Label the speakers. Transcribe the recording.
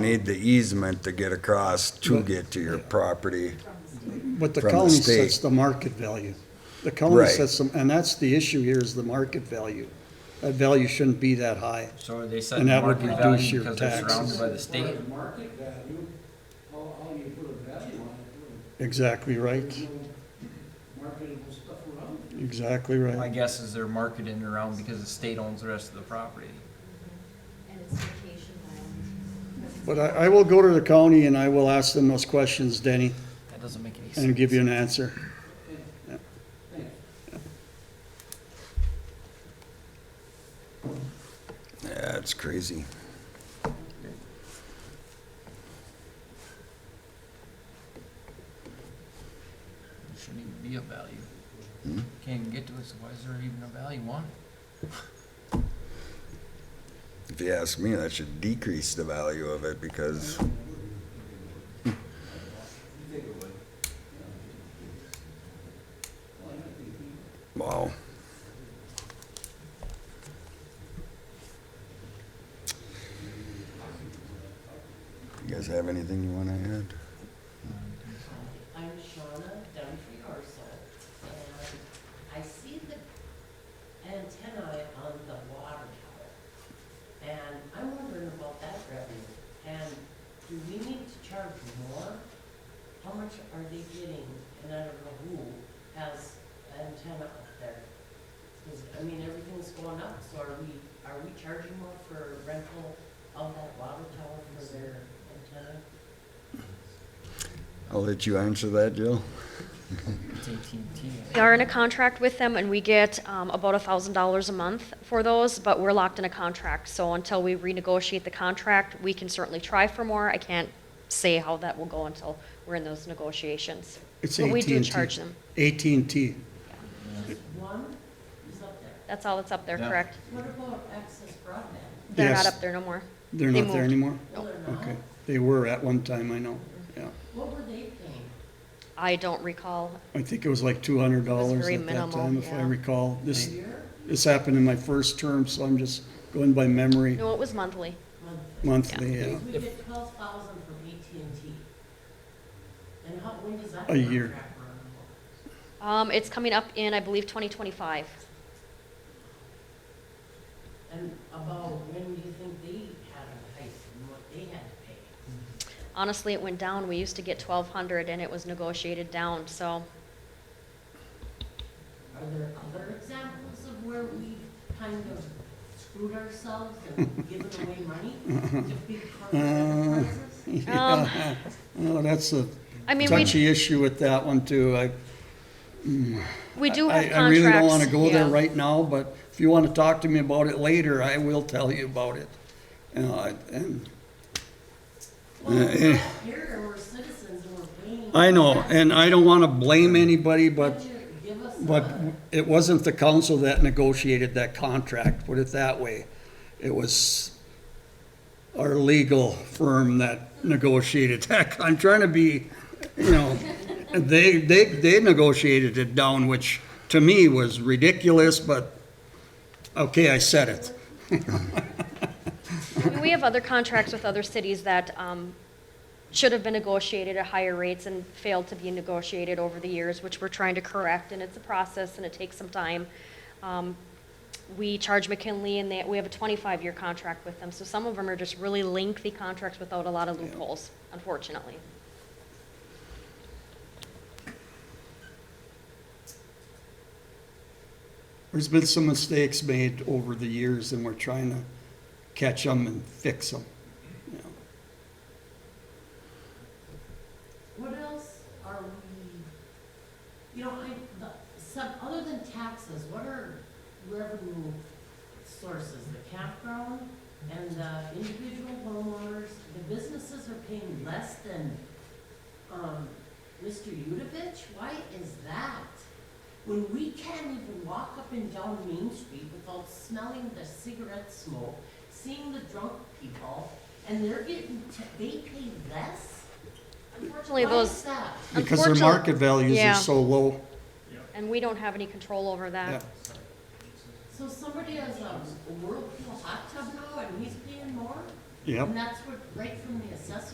Speaker 1: Need the easement to get across to get to your property.
Speaker 2: But the
Speaker 1: from the
Speaker 2: county
Speaker 1: state.
Speaker 2: sets the market value. The county
Speaker 1: Right.
Speaker 2: sets them, and that's the issue here is the market value. That value shouldn't be that high.
Speaker 3: So are they setting
Speaker 2: And that would
Speaker 3: market
Speaker 2: reduce your
Speaker 3: value because they're surrounded
Speaker 2: taxes.
Speaker 3: by the state?
Speaker 4: Market value, how, how you put a value on it,
Speaker 2: Exactly right,
Speaker 4: or marketable stuff around it.
Speaker 2: exactly
Speaker 3: My
Speaker 2: right.
Speaker 3: guess is they're marketing around because the state owns the rest of the property.
Speaker 5: and it's vacation land.
Speaker 2: But I, I will go to the county and I will ask them those questions, Denny,
Speaker 3: That doesn't make any sense.
Speaker 2: and give you an answer.
Speaker 1: Yeah, it's crazy.
Speaker 3: There shouldn't even be a value.
Speaker 2: Hmm?
Speaker 3: Can't even get to it, so why is there even a value on it?
Speaker 1: If you ask me, that should decrease the value of it because Wow. You guys have anything you want to add?
Speaker 6: I'm Shauna Dunphy Orso, and I see the antennae on the water tower. And I'm wondering about that revenue, and do we need to charge more? How much are they getting, and I don't know who has antenna up there? 'Cause, I mean, everything's going up, so are we, are we charging more for rental of that water tower for their antenna?
Speaker 1: I'll let you answer that, Jill.
Speaker 3: It's AT&T.
Speaker 5: We are in a contract with them, and we get um, about $1,000 a month for those, but we're locked in a contract. So until we renegotiate the contract, we can certainly try for more. I can't say how that will go until we're in those negotiations.
Speaker 2: It's
Speaker 5: But we do
Speaker 2: AT&T.
Speaker 5: charge them.
Speaker 2: AT&T,
Speaker 6: One is up there.
Speaker 5: That's all that's up there,
Speaker 3: Yeah.
Speaker 5: correct?
Speaker 6: What about access broadband?
Speaker 5: They're not
Speaker 2: Yes.
Speaker 5: up there no more.
Speaker 2: they're
Speaker 5: They
Speaker 2: not there
Speaker 5: moved.
Speaker 2: anymore?
Speaker 6: Well, they're not.
Speaker 2: Oh, Okay, they were at one time, I know, yeah.
Speaker 6: What were they paying?
Speaker 5: I don't recall.
Speaker 2: I think it was like two hundred dollars
Speaker 5: very
Speaker 2: at that
Speaker 5: minimal,
Speaker 2: time, if I
Speaker 5: yeah.
Speaker 2: recall. This,
Speaker 6: Year,
Speaker 2: this happened in my first term, so I'm just going by memory,
Speaker 5: No, it was monthly.
Speaker 6: monthly?
Speaker 2: monthly, yeah.
Speaker 6: We get twelve thousand from AT&T. And how, when does that
Speaker 2: A year.
Speaker 6: contract run?
Speaker 5: Um, It's coming up in, I believe, 2025.
Speaker 6: And about when do you think they had a hike and what they had to pay?
Speaker 5: Honestly, it went down. We used to get 1,200, and it was negotiated down, so
Speaker 6: Are there other examples of where we kind of screwed ourselves and given away money to big
Speaker 2: Uh,
Speaker 6: enterprises?
Speaker 5: Um,
Speaker 2: Oh, that's a
Speaker 5: I mean, we,
Speaker 2: touchy issue with that one too. I,
Speaker 5: we do
Speaker 2: I-
Speaker 5: have contracts.
Speaker 2: I really don't wanna go there
Speaker 5: yeah.
Speaker 2: right now, but if you wanna talk to me about it later, I will tell you about it. You know, I- and, eh,
Speaker 6: Well, we're not here and we're citizens and we're paying.
Speaker 2: I know, and I don't wanna blame anybody, but,
Speaker 6: Would you give us
Speaker 2: but
Speaker 6: a-
Speaker 2: it wasn't the council that negotiated that contract, put it that way. It was our legal firm that negotiated that. I'm trying to be, you know, they, they, they negotiated it down, which to me was ridiculous, but, okay, I said it.
Speaker 5: I mean, We have other contracts with other cities that um, should have been negotiated at higher rates and failed to be negotiated over the years, which we're trying to correct, and it's a process and it takes some time. Um, We charge McKinley and they, we have a 25-year contract with them, so some of them are just really lengthy contracts without a lot of loopholes, unfortunately.
Speaker 2: There's been some mistakes made over the years and we're trying to catch them and fix them.
Speaker 6: What else are we, you know, I, the, some, other than taxes, what are revenue sources? The campground and the individual homeowners, the businesses are paying less than, um, Mr. Yudovich? Why is that? When we can't even walk up and down Main Street without smelling the cigarette smoke, seeing the drunk people, and they're getting, t- they pay less?
Speaker 5: Unfortunately,
Speaker 6: Why is
Speaker 5: those,
Speaker 6: that?
Speaker 2: Because their
Speaker 5: Unfortunate-
Speaker 2: market values are
Speaker 5: yeah.
Speaker 2: so low.
Speaker 5: and we don't have any control over
Speaker 2: Yeah.
Speaker 5: that.
Speaker 6: um, So somebody has a a whirlpool hot tub now and he's paying more?
Speaker 2: Yep.
Speaker 6: And that's what, right from the assessor